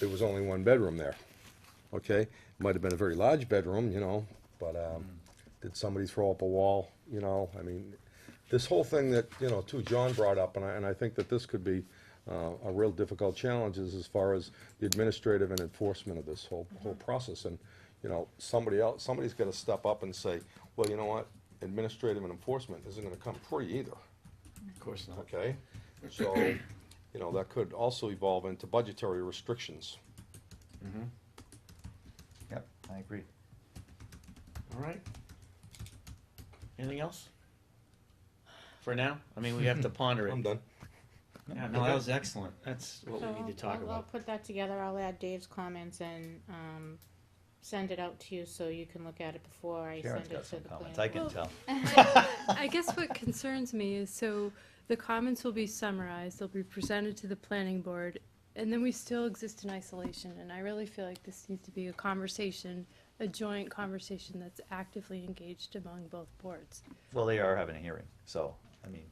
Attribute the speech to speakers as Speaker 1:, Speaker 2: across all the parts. Speaker 1: there was only one bedroom there, okay? Might have been a very large bedroom, you know, but, um, did somebody throw up a wall, you know, I mean, this whole thing that, you know, too, John brought up, and I, and I think that this could be, uh, a real difficult challenge is as far as the administrative and enforcement of this whole, whole process, and, you know, somebody else, somebody's gotta step up and say, well, you know what, administrative and enforcement isn't gonna come free either.
Speaker 2: Of course not.
Speaker 1: Okay, so, you know, that could also evolve into budgetary restrictions.
Speaker 3: Yep, I agree.
Speaker 2: All right. Anything else? For now? I mean, we have to ponder it.
Speaker 1: I'm done.
Speaker 2: Yeah, no, that was excellent. That's what
Speaker 4: So
Speaker 2: we need to
Speaker 4: I'll-
Speaker 2: talk
Speaker 4: I'll- I'll
Speaker 2: about.
Speaker 4: put that together, I'll add Dave's comments and, um, send it out to you so you can look at it before I
Speaker 3: Karen's
Speaker 4: send it
Speaker 3: got
Speaker 4: to
Speaker 3: some
Speaker 4: the
Speaker 3: comments, I
Speaker 4: planning.
Speaker 3: can
Speaker 5: Well,
Speaker 3: tell.
Speaker 5: I guess what concerns me is, so the comments will be summarized, they'll be presented to the planning board, and then we still exist in isolation, and I really feel like this needs to be a conversation, a joint conversation that's actively engaged among both boards,
Speaker 3: Well, they are having a hearing, so, I mean,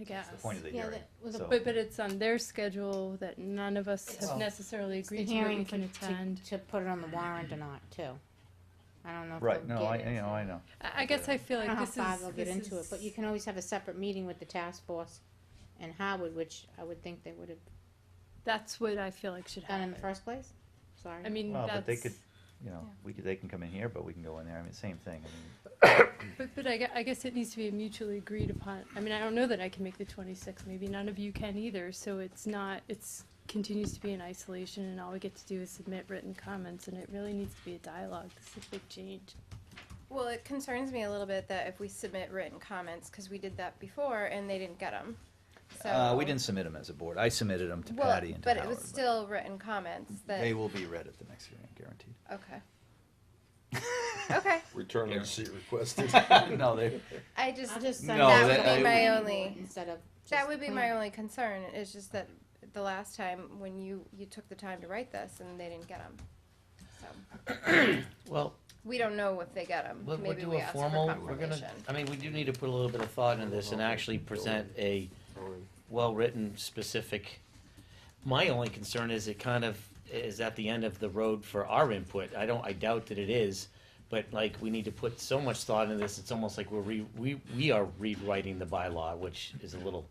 Speaker 5: I guess.
Speaker 3: that's the point of the
Speaker 4: Yeah,
Speaker 3: hearing.
Speaker 4: that was a
Speaker 3: So,
Speaker 5: But, but it's on their schedule that none of us
Speaker 4: Well,
Speaker 5: have necessarily
Speaker 4: It's the
Speaker 5: agreed to where we
Speaker 4: hearing
Speaker 5: can
Speaker 4: to, to,
Speaker 5: attend.
Speaker 4: to put it on the warrant or not, too. I don't know if
Speaker 3: Right,
Speaker 4: they'll
Speaker 3: no,
Speaker 4: get
Speaker 3: I,
Speaker 4: it,
Speaker 3: you know,
Speaker 4: so-
Speaker 3: I know.
Speaker 5: I, I guess I feel
Speaker 4: I don't
Speaker 5: like
Speaker 4: know how
Speaker 5: this is,
Speaker 4: far they'll get
Speaker 5: this
Speaker 4: into it,
Speaker 5: is-
Speaker 4: but you can always have a separate meeting with the task force and Howard, which I would think they would have
Speaker 5: that's what I feel like should
Speaker 4: done in the
Speaker 5: happen.
Speaker 4: first place, sorry.
Speaker 5: I mean,
Speaker 3: Well,
Speaker 5: that's.
Speaker 3: but they could, you know,
Speaker 5: yeah.
Speaker 3: we could, they can come in here, but we can go in there, I mean, same thing, I mean,
Speaker 5: But, but I, gue- I guess it needs to be mutually agreed upon. I mean, I don't know that I can make the twenty-sixth, maybe none of you can either, so it's not, it's, continues to be in isolation, and all we get to do is submit written comments, and it really needs to be a dialogue. This is a big change.
Speaker 6: Well, it concerns me a little bit that if we submit written comments, because we did that before and they didn't get them. So,
Speaker 3: Uh, we didn't submit them as a board, I submitted them to
Speaker 6: well,
Speaker 3: Patty and to
Speaker 6: but
Speaker 3: Howard.
Speaker 6: it was still written comments that.
Speaker 3: They will be read at the next hearing, guaranteed.
Speaker 6: Okay. okay.
Speaker 1: Return
Speaker 3: Yeah.
Speaker 1: and seat requested.
Speaker 3: No, they,
Speaker 6: I just,
Speaker 4: I'll just send
Speaker 3: No,
Speaker 4: it
Speaker 3: that-
Speaker 4: to
Speaker 3: that
Speaker 4: the
Speaker 3: would-
Speaker 4: planning board
Speaker 6: only-
Speaker 4: Instead of.
Speaker 6: that
Speaker 4: just
Speaker 6: would be
Speaker 4: the
Speaker 6: my
Speaker 4: planning.
Speaker 6: only concern. It's just that the last time when you you took the time to write this and they didn't get them, so
Speaker 2: Well,
Speaker 6: we don't know if they get them.
Speaker 2: we'll, we'll
Speaker 6: Maybe
Speaker 2: do
Speaker 6: we
Speaker 2: a
Speaker 6: ask
Speaker 2: formal,
Speaker 6: for
Speaker 2: we're gonna,
Speaker 6: confirmation.
Speaker 2: I mean, we do need to put a little bit of thought into this and actually present a well-written, specific. My only concern is it kind of is at the end of the road for our input. I don't, I doubt that it is, but like, we need to put so much thought into this, it's almost like we're re, we, we are rewriting the bylaw, which is a little,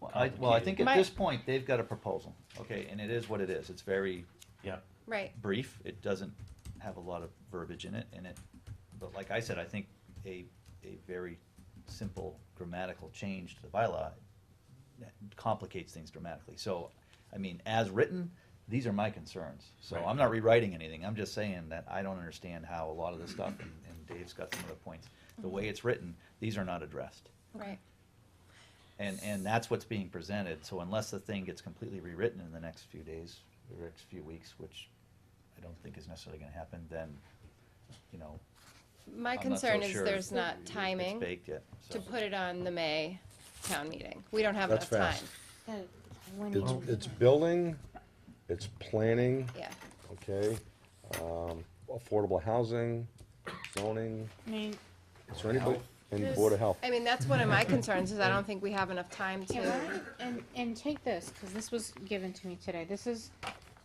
Speaker 3: well, I, well, I think at
Speaker 6: My-
Speaker 3: this point, they've got a proposal, okay, and it is what it is, it's very
Speaker 2: yeah.
Speaker 6: Right.
Speaker 3: brief. It doesn't have a lot of verbiage in it, and it, but like I said, I think a, a very simple grammatical change to the bylaw that complicates things dramatically. So, I mean, as written, these are my concerns. So
Speaker 2: Right.
Speaker 3: I'm not rewriting anything. I'm just saying that I don't understand how a lot of this stuff, and, and Dave's got some of the points, the way it's written, these are not addressed.
Speaker 6: Right.
Speaker 3: And, and that's what's being presented, so unless the thing gets completely rewritten in the next few days, or next few weeks, which I don't think is necessarily gonna happen, then, you know,
Speaker 6: My
Speaker 3: I'm not so
Speaker 6: concern is
Speaker 3: sure
Speaker 6: there's not
Speaker 3: it's
Speaker 6: timing.
Speaker 3: baked yet, so.
Speaker 6: to put it on the May town meeting. We don't have
Speaker 1: That's
Speaker 6: enough time.
Speaker 1: fast.
Speaker 4: That- when
Speaker 1: It's,
Speaker 4: you-
Speaker 1: it's building, it's planning,
Speaker 6: Yeah.
Speaker 1: okay, um, affordable housing, zoning,
Speaker 4: I mean,
Speaker 1: is there anybody, and Board of Health.
Speaker 6: I mean, that's one of my concerns is I don't think we have enough time
Speaker 4: Yeah, why
Speaker 6: to.
Speaker 4: don't you- and, and take this, because this was given to me today. This is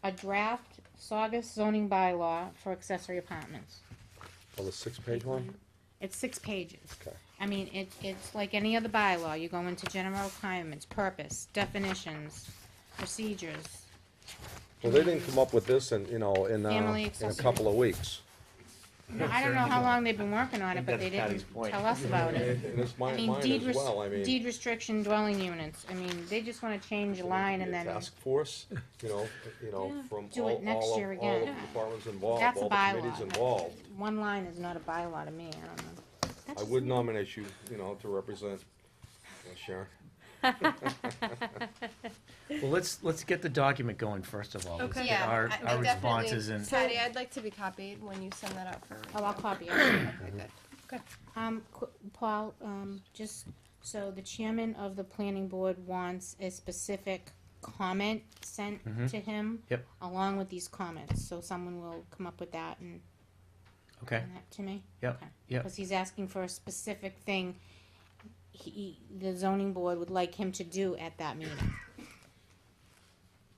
Speaker 4: a draft Saugus zoning bylaw for accessory apartments.
Speaker 1: Oh, the six-page one?
Speaker 4: It's six pages.
Speaker 1: Okay.
Speaker 4: I mean, it, it's like any other bylaw. You go into general requirements, purpose, definitions, procedures.
Speaker 1: Well, they didn't come up with this in, you know, in, uh,
Speaker 4: Family
Speaker 1: in a
Speaker 4: accessory.
Speaker 1: couple of weeks.
Speaker 4: Now, I don't know how long they've been working on it,
Speaker 2: think
Speaker 4: but they
Speaker 2: that's Patty's
Speaker 4: didn't
Speaker 2: point.
Speaker 4: tell us about it.
Speaker 1: And it's
Speaker 4: I
Speaker 1: mine,
Speaker 4: mean,
Speaker 1: mine
Speaker 4: deed,
Speaker 1: as
Speaker 4: res-
Speaker 1: well, I mean.
Speaker 4: deed restriction dwelling units. I mean, they just wanna change a line and then.
Speaker 1: Task force, you know, you know, from
Speaker 4: Do
Speaker 1: all,
Speaker 4: it next
Speaker 1: all of,
Speaker 4: year
Speaker 1: all of
Speaker 4: again.
Speaker 1: the departments involved,
Speaker 4: That's
Speaker 1: all
Speaker 4: a
Speaker 1: the committees
Speaker 4: bylaw.
Speaker 1: involved.
Speaker 4: One line is not a bylaw to me, I don't know. That's
Speaker 1: I
Speaker 4: just
Speaker 1: would
Speaker 4: me.
Speaker 1: nominate you, you know, to represent uh, Sharon.
Speaker 2: Well, let's, let's get the document going first of all.
Speaker 5: Okay.
Speaker 6: Yeah,
Speaker 2: Our,
Speaker 6: I- I
Speaker 2: our
Speaker 6: definitely-
Speaker 2: responses and.
Speaker 6: Patty, I'd like to be copied when you send that out for.
Speaker 4: Oh, I'll copy it.
Speaker 6: review. Okay, good.
Speaker 4: Um, qu- Paul, um, just, so the chairman of the planning board wants a specific comment sent to him.
Speaker 2: Mm-hmm. Yep.
Speaker 4: Along with these comments, so someone will come up with that and
Speaker 2: Okay,
Speaker 4: send that to me?
Speaker 2: Yep,
Speaker 4: Okay.
Speaker 2: yep.
Speaker 4: Cause he's asking for a specific thing he, the zoning board would like him to do at that meeting.